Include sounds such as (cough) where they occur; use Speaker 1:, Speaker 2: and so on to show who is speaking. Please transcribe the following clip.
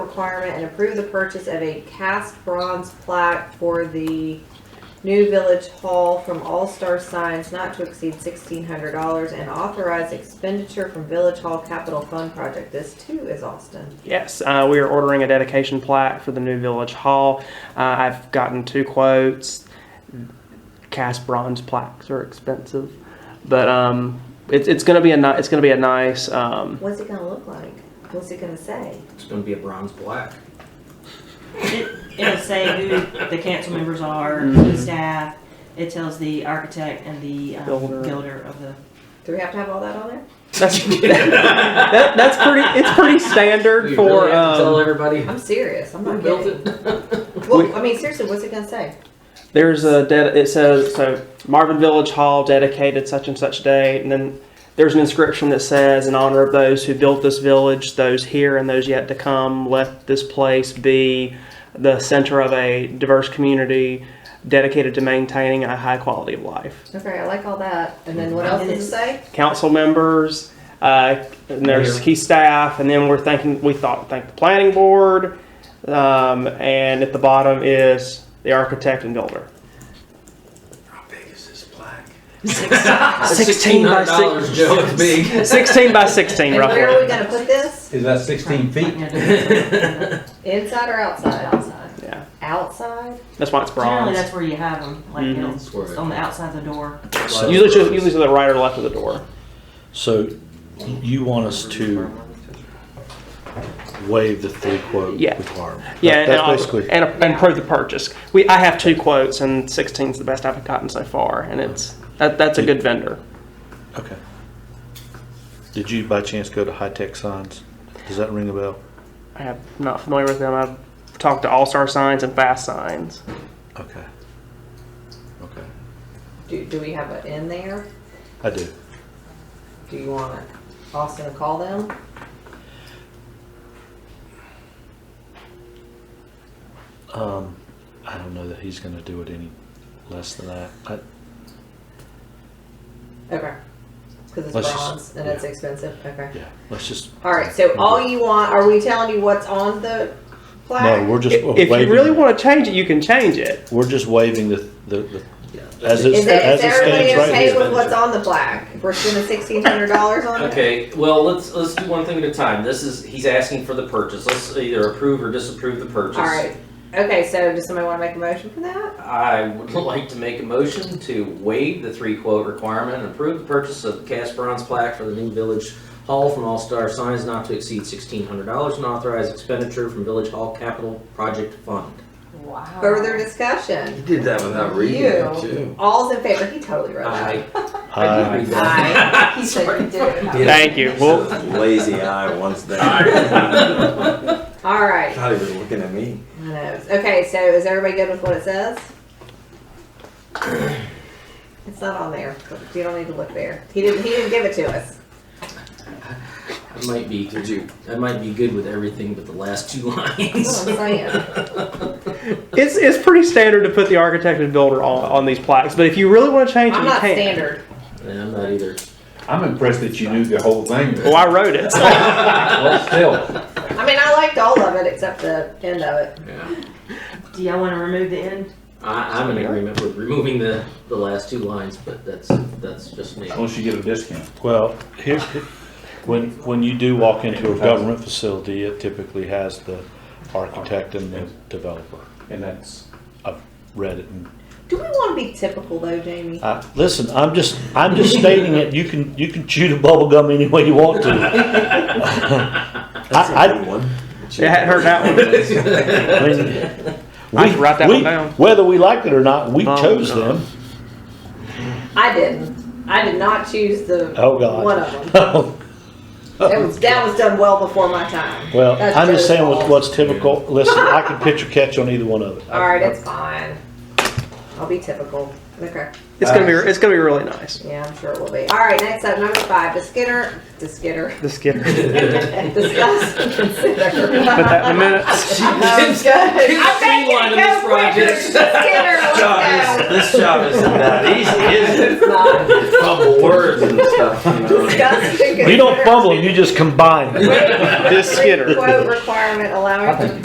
Speaker 1: requirement and approve the purchase of a cast bronze plaque for the new village hall from All Star Signs not to exceed sixteen hundred dollars and authorize expenditure from village hall capital fund project. This too is Austin.
Speaker 2: Yes, uh, we are ordering a dedication plaque for the new Village Hall. Uh, I've gotten two quotes. Cast bronze plaques are expensive, but um, it's it's gonna be a ni- it's gonna be a nice um, (laughs)
Speaker 1: What's it gonna look like? What's it gonna say?
Speaker 3: It's gonna be a bronze black.
Speaker 4: It, it'll say who the council members are,
Speaker 2: Mm-hmm.
Speaker 4: who the staff. It tells the architect and the um,
Speaker 2: Builder.
Speaker 4: builder of the.
Speaker 1: Do we have to have all that on there?
Speaker 2: that's (laughs) that, that's pretty it's pretty standard
Speaker 3: You
Speaker 2: for
Speaker 3: really have to tell
Speaker 2: um,
Speaker 3: everybody
Speaker 1: I'm serious. I'm
Speaker 3: who
Speaker 1: not
Speaker 3: built
Speaker 1: kidding.
Speaker 3: it. (laughs)
Speaker 1: Well, I mean, seriously, what's it gonna say?
Speaker 2: there's a ded- it says so Marvin Village Hall dedicated such and such day and then there's an inscription that says in honor of those who built this village those here and those yet to come let this place be the center of a diverse community dedicated to maintaining a high quality of life
Speaker 1: Okay, I like all that. And then what else does it say?
Speaker 2: council members uh, and there's
Speaker 3: Mayor.
Speaker 2: key staff and then we're thinking we thought thank the planning board um, and at the bottom is the architect and builder
Speaker 3: How big is this plaque?
Speaker 2: 16 by
Speaker 3: dollars, Joe.
Speaker 1: (laughs)
Speaker 3: It's big.
Speaker 2: 16 by 16
Speaker 1: And where are we
Speaker 2: roughly
Speaker 1: gonna put this?
Speaker 5: Is that sixteen feet?
Speaker 4: Generally,
Speaker 1: Inside or outside? Outside.
Speaker 2: yeah
Speaker 1: Outside?
Speaker 2: that's why it's bronze
Speaker 4: that's where you have them. Like
Speaker 2: Mhm.
Speaker 4: it'll-
Speaker 5: Mm-hmm.
Speaker 3: That's where
Speaker 4: it's
Speaker 3: it-
Speaker 4: on the outside of the door.
Speaker 2: usually to, usually to the right or left of the door
Speaker 6: So you want us to waive the three quote
Speaker 2: Yeah.
Speaker 6: requirement?
Speaker 2: yeah
Speaker 6: That-
Speaker 2: and,
Speaker 6: That's
Speaker 2: I'll-
Speaker 6: basically,
Speaker 2: and, and prove the purchase we i have two quotes and 16 is the best i've gotten so far and it's that, that's a good vendor
Speaker 6: okay. Did you by chance go to High Tech Signs? Does that ring a bell?
Speaker 2: i am not familiar with them i've talked to all star signs and fast signs
Speaker 6: Okay. Okay,
Speaker 1: Do, do we have it in there?
Speaker 6: I do.
Speaker 1: Do you want Austin to call them?
Speaker 6: Um, I don't know that he's gonna do it any less than that. I,
Speaker 1: Okay. Because it's
Speaker 6: Let's just-
Speaker 1: bronze and it's expensive. Okay.
Speaker 6: yeah, let's just,
Speaker 1: All right. So all you want? Are we telling you what's on the plaque?
Speaker 6: no, we're just
Speaker 2: if you really
Speaker 6: waiving,
Speaker 2: want to change it you can change it
Speaker 6: we're just waiving the, the, the, as it,
Speaker 1: Is, that,
Speaker 6: as
Speaker 1: is
Speaker 6: it
Speaker 1: everybody
Speaker 6: stands right
Speaker 1: okay
Speaker 6: here.
Speaker 1: with what's on the plaque? If We're spending sixteen hundred dollars on it.
Speaker 3: Okay, well, let's, let's do one thing at a time. This is, he's asking for the purchase. Let's either approve or disapprove the purchase.
Speaker 1: All right. Okay. So does somebody want to make a motion for that?
Speaker 3: I would (laughs) like to make a motion to waive the three quote requirement and approve the purchase of cast bronze plaque for the new village hall from All Star Signs not to exceed sixteen hundred dollars and authorize expenditure from Village Hall Capital Project Fund.
Speaker 4: Wow.
Speaker 1: Further discussion.
Speaker 7: did that without reading it
Speaker 1: You.
Speaker 7: too.
Speaker 1: All's in favor. He totally wrote that.
Speaker 3: I, I
Speaker 6: Aye.
Speaker 3: did read
Speaker 1: Aye.
Speaker 3: that. (laughs)
Speaker 1: He said he did.
Speaker 7: Yeah.
Speaker 2: thank you well
Speaker 7: Lazy eye once there. (laughs) I
Speaker 1: All right.
Speaker 7: thought he was looking at me.
Speaker 1: I know. Okay, so is everybody good with what it says? (clears throat) It's not on there. You don't need to look there. He didn't. He didn't give it to
Speaker 2: (laughs)
Speaker 1: us.
Speaker 3: I might be,
Speaker 7: Did you?
Speaker 3: I might be good with everything but the last two (laughs)
Speaker 1: That's
Speaker 3: lines.
Speaker 1: what I'm saying.
Speaker 2: it's, it's pretty standard to put the architect and builder on, on these plaques but if you really want to change it
Speaker 1: I'm
Speaker 2: you
Speaker 1: not
Speaker 2: can
Speaker 1: standard.
Speaker 3: Yeah, I'm not either.
Speaker 5: I'm impressed that you knew the whole thing.
Speaker 2: well Oh, i wrote
Speaker 1: (laughs)
Speaker 2: it
Speaker 5: Well, still,
Speaker 1: I mean, I liked all of it except the end of it.
Speaker 3: Yeah.
Speaker 4: Do y'all want to remove the end?
Speaker 3: I, I'm in agreement with removing the, the last two lines, but that's, that's just me.
Speaker 5: unless you get a discount.
Speaker 6: Well, here, when, when you do walk into a government facility, it typically has the architect and the developer.
Speaker 5: And that's,
Speaker 6: I've read it and,
Speaker 1: Do we want to be typical though, Jamie?
Speaker 6: I, listen, I'm just, I'm just stating it, you can, you can chew the bubble gum any way you want to.
Speaker 7: That's a
Speaker 6: I-
Speaker 7: good one.
Speaker 2: Yeah, I hadn't heard that one.
Speaker 6: I mean,
Speaker 2: I can
Speaker 6: we-
Speaker 2: write that one
Speaker 6: we-
Speaker 2: down.
Speaker 6: Whether we liked it or not, we
Speaker 2: Oh,
Speaker 6: chose
Speaker 2: no.
Speaker 6: them.
Speaker 1: I didn't. I did not choose the
Speaker 6: Oh, God.
Speaker 1: one of them.
Speaker 6: Oh,
Speaker 1: That was that was done well before my time.
Speaker 6: (laughs) Well,
Speaker 1: That's
Speaker 6: I'm
Speaker 1: Joe's
Speaker 6: just saying what-
Speaker 1: fault.
Speaker 6: what's typical, listen, I can pitch or catch on either one of it.
Speaker 1: All right, it's fine. I'll be typical. Okay.
Speaker 2: It's gonna be it's gonna be really nice.
Speaker 1: Yeah, I'm sure it will be. All right, next up, number five, Diskitter, Diskitter,
Speaker 2: The skinner.
Speaker 1: discuss and consider.
Speaker 2: Put that in the minutes.
Speaker 1: Um, good.
Speaker 3: I
Speaker 1: I'm
Speaker 3: see one of this project.
Speaker 1: Diskitter, let's go.
Speaker 7: This job isn't that easy, is it?
Speaker 1: It's not.
Speaker 7: Fumble words and stuff, you know.
Speaker 1: Discuss and
Speaker 6: You don't
Speaker 1: consider
Speaker 6: fumble, you just combine.
Speaker 1: This
Speaker 2: Diskitter.
Speaker 1: Quote requirement allowing for the